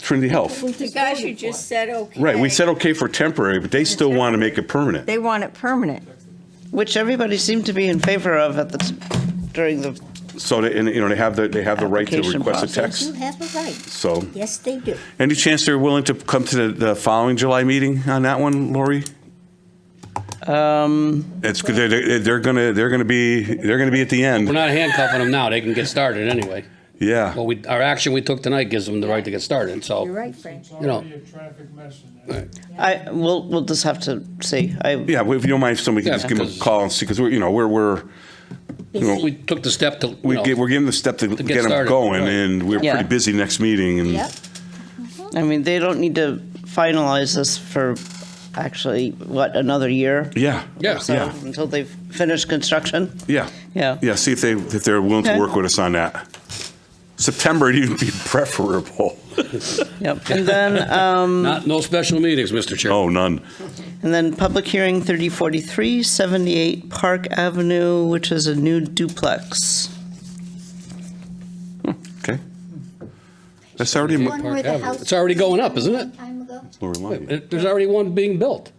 Trinity Health. The guys who just said okay. Right, we said okay for temporary, but they still want to make it permanent. They want it permanent. which everybody seemed to be in favor of at the, t- during the, So, they- and, you know, they have the, they have the right to Application request a process. text. You have a right. So, Yes, they do. any chance they're willing to come to the, the following July meeting on that one, Lori? um, It's, they're, they're they're gonna, they're gonna be, they're gonna be at the We're end. not handcuffing them now. They can get started anyway. But Yeah. we, our action we took tonight gives them the right to get started, so. You're right, Frank. You know. Already a traffic mess in there. I, we'll, we'll just have to see. I, Yeah, well, if you don't mind, somebody can Yeah, just give them a because- call and see, because we're, you know, we're, we're, you know, We took the step to, you we get, know, we're giving the step to get them started, going, right. and we're Yeah. pretty busy next meeting, and. Yep. I mean, they don't need to finalize this for actually, what, another year? Yeah. Yeah. So, Yeah. Until they've finished construction? Yeah. Yeah. Yeah, see if they, if they're willing to Okay. work with us on that. September would even be preferable. Yep. And then, um, not, no special meetings, Mr. Chair. Oh, none. and then public hearing 3043, 78 Park Avenue, which is a new duplex. Okay. That's already, mo- One where the Avenue. house It's already was going up, isn't it? Time ago. Lori, why- yeah, There's already one being built.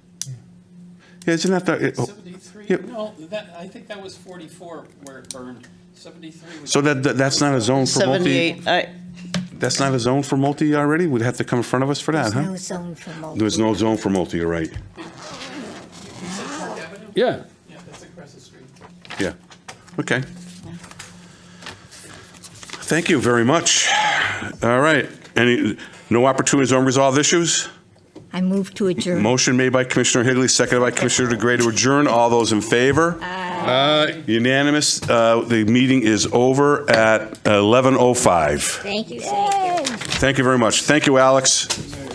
isn't that the, it- oh, 73, Yep. no, that, I think that was 44 where it burned. 73 was. so that, that- that's not a zone for multi, 78, I, that's not a zone for multi already? We'd have to come in front of us for that, There's no huh? zone for multi. There's no zone for multi, you're right. Park Avenue? Yeah. Yeah, that's across the street. Yeah. Okay. Thank you very much. All right. Any, no opportunities on resolved issues? I move to adjourn. Motion made by Commissioner Higley, seconded by Commissioner DeGray to adjourn. All those in favor? Aye. Unanimous. Uh, The meeting is over at 11:05. Thank you, thank you. Thank you very much. Thank you, Alex.